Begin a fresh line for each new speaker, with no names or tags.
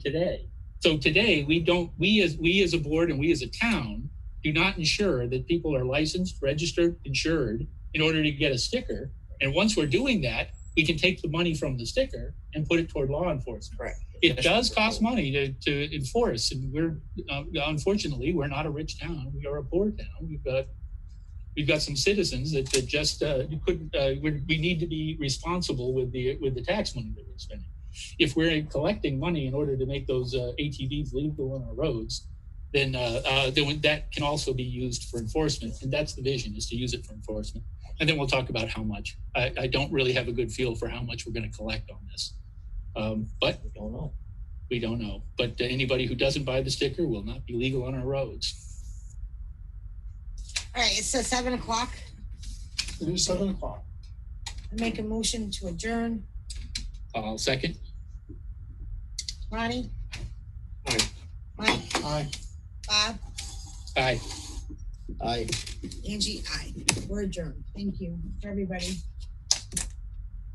today. So today, we don't, we as, we as a board and we as a town do not ensure that people are licensed, registered, insured in order to get a sticker. And once we're doing that, we can take the money from the sticker and put it toward law enforcement.
Correct.
It does cost money to, to enforce and we're, uh, unfortunately, we're not a rich town. We are a poor town. We've got, we've got some citizens that, that just, uh, you couldn't, uh, we, we need to be responsible with the, with the tax money that we're spending. If we're collecting money in order to make those uh, ATVs legal on our roads, then, uh, uh, then that can also be used for enforcement. And that's the vision is to use it for enforcement. And then we'll talk about how much. I, I don't really have a good feel for how much we're going to collect on this. Um, but
We don't know.
we don't know. But anybody who doesn't buy the sticker will not be legal on our roads.
All right, it says seven o'clock.
It is seven o'clock.
I Make a motion to adjourn.
I'll second.
Ronnie?
Aye.
Mike,
Aye.
Bob,
Aye.
Aye.
Angie, I. We're adjourned. Thank you, everybody.